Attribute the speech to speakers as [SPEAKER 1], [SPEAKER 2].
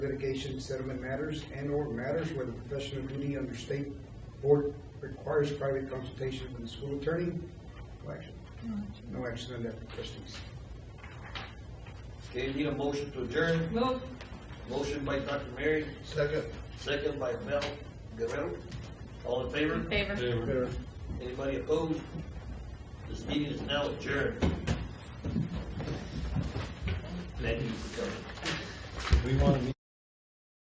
[SPEAKER 1] litigation settlement matters and/or matters where the professional duty under state board requires private consultation with the school attorney. No action. No action on that, trustees.
[SPEAKER 2] Okay, need a motion to adjourn.
[SPEAKER 3] Move.
[SPEAKER 2] Motion by Dr. Mary,
[SPEAKER 1] Second.
[SPEAKER 2] second by Mel Guerrero. All in favor?
[SPEAKER 3] In favor.
[SPEAKER 2] Anybody opposed? This meeting is now adjourned. Glad you could come.
[SPEAKER 4] We want to